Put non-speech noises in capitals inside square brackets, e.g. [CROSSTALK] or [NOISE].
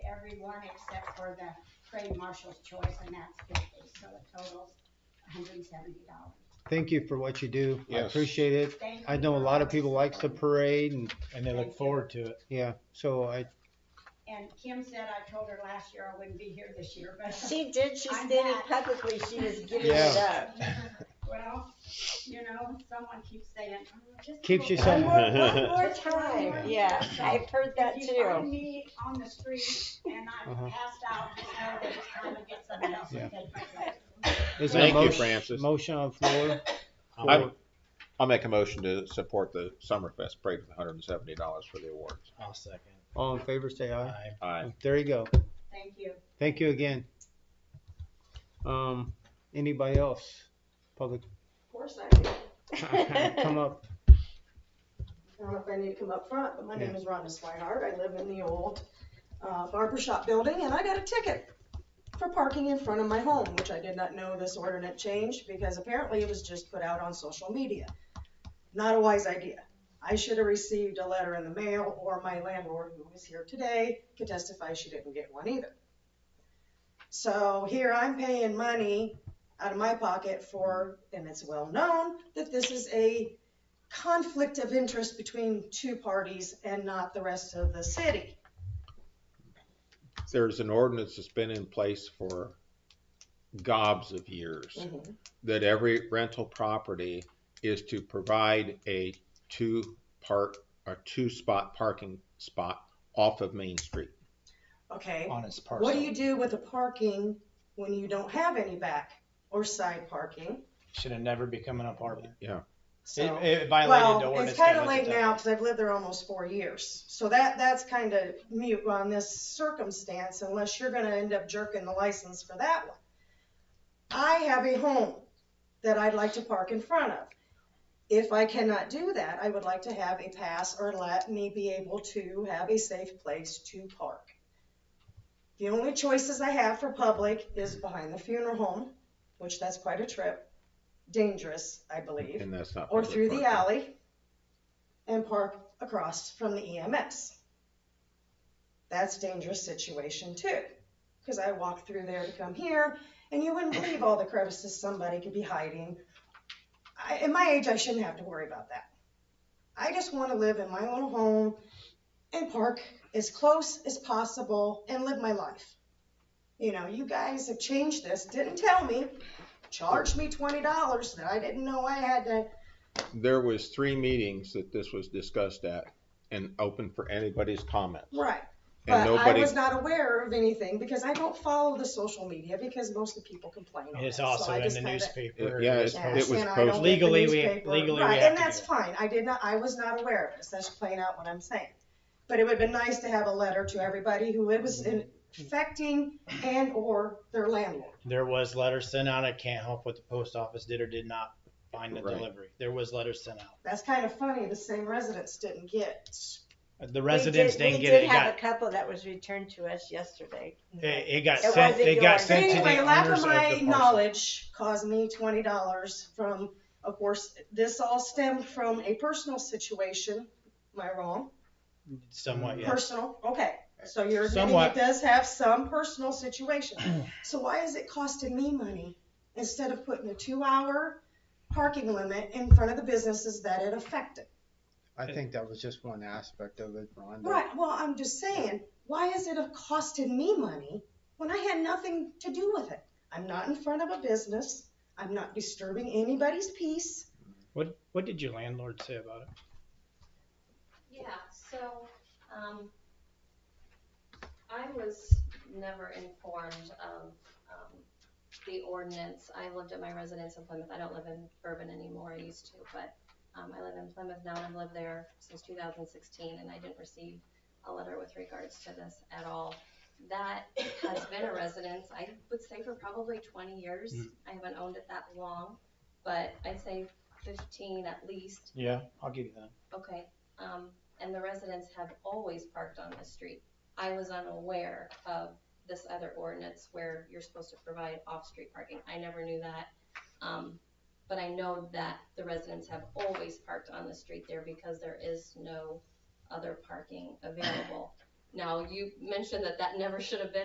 everyone except for the trade marshal's choice, and that's fifty, so it totals hundred and seventy dollars. Thank you for what you do. I Yes. appreciate it. I know a lot of people likes the parade and, and they look forward to it. yeah, so I, And Kim said, I told her last year I wouldn't be here this year, but. [LAUGHS] [LAUGHS] She did, she I'm stated back. publicly she [LAUGHS] was giving it Yeah. up. Well, you know, someone keeps saying. "Oh, just Keeps you a One little- more, one [LAUGHS] more time, yeah, I've heard that If you find too. me on the street and Uh-huh. I'm passed out, just know that it's time to get somebody else Yeah. to take my place. is there a Thank you, motion, Francis. motion on the floor? I- I'll make a motion to support the Summerfest parade with hundred and seventy dollars for the awards. I'll second. All in favor, say aye. I, Aye. There you go. Thank you. Thank you again. Um, anybody else? Public, Of course I do. come up. I don't know if I need to come up front, but my name Yeah. is Rhonda Swihart. I live in the old uh, barber shop building and I got a ticket for parking in front of my home, which I did not know this ordinance changed because apparently it was just put out on social media. Not a wise idea. I should have received a letter in the mail or my landlord, who is here today, could testify she didn't get one either. So here I'm paying money out of my pocket for, and it's well known, that this is a conflict of interest between two parties and not the rest of the city. There's an ordinance that's been in place for gobs of years that every rental property is to provide a two park or two spot parking spot off of Main Street. Okay, on his parcel. what do you do with the parking when you don't have any back or side parking? Should have never become an apartment. It, So, it violated the well, ordinance. it's kind by of late legislature. now because I've lived there almost four years. So that, that's kind of mute on this circumstance unless you're gonna end up jerking the license for that one. I have a home that I'd like to park in front of. If I cannot do that, I would like to have a pass or let me be able to have a safe place to park. The only choices I have for public is behind the funeral home, which that's quite a trip, dangerous, I believe, And that's not. or public through the parking. alley and park across from the EMS. That's a dangerous situation too, because I walk through there to come here and you wouldn't believe all the crevices somebody could be hiding. I, at my age, I shouldn't have to worry about that. I just want to live in my own home and park as close as possible and live my life. You know, you guys have changed this, didn't tell me, charged me twenty dollars that I didn't know I had to. There was three meetings that this was discussed at and open for anybody's comment. Right. And But I nobody, was not aware of anything because I don't follow the social media because most of the people complain. on It's it. So also I in just the kinda- newspaper. Yeah, It's it- Yeah, posted. was and I posted. don't get the Legally, we- newspaper. legally we Right, have and to that's do it. fine. I did not, I was not aware of this. That's plain out what I'm saying. But it would have been nice to have a letter to everybody who it was in- affecting and or their landlord. There was letters sent out. I can't help what the post office did or did not find the Right. delivery. There was letters sent out. That's kind of funny. The same residents didn't get. The [LAUGHS] residents We did- didn't get We it. It did have got, a couple that was returned to us yesterday. it, it got It sent. wasn't It got yours. sent to Anyway, the lack owners of of my the parcel. knowledge caused me twenty dollars from, of course, this all stemmed from a personal situation. Am I wrong? Somewhat, yes. Personal, okay. So you're admitting Somewhat. it does have some [CLEARS THROAT] personal situation. So why is it costing me money instead of putting a two-hour parking limit in front of the businesses that it affected? I think that was just one aspect of it, Rhonda. Right, well, I'm just saying, why is it have costed me money when I had nothing to do with it? I'm not in front of a business. I'm not disturbing anybody's peace. What, what did your landlord say about it? Yeah, so, um, I was never informed of, um, the ordinance. I lived at my residence in Plymouth. I don't live in Bourbon anymore. I used to, but, um, I live in Plymouth now and I've lived there since two thousand sixteen and I didn't receive a letter with regards to this at all. That has been a residence, I would say for probably twenty years. Mm. I haven't owned it that long, but I'd say fifteen at least. Yeah, I'll give you that. Okay, um, and the residents have always parked on the street. I was unaware of this other ordinance where you're supposed to provide off-street parking. I never knew that. Um, but I know that the residents have always parked on the street there because there is no other parking available. Now, you mentioned that that never should have been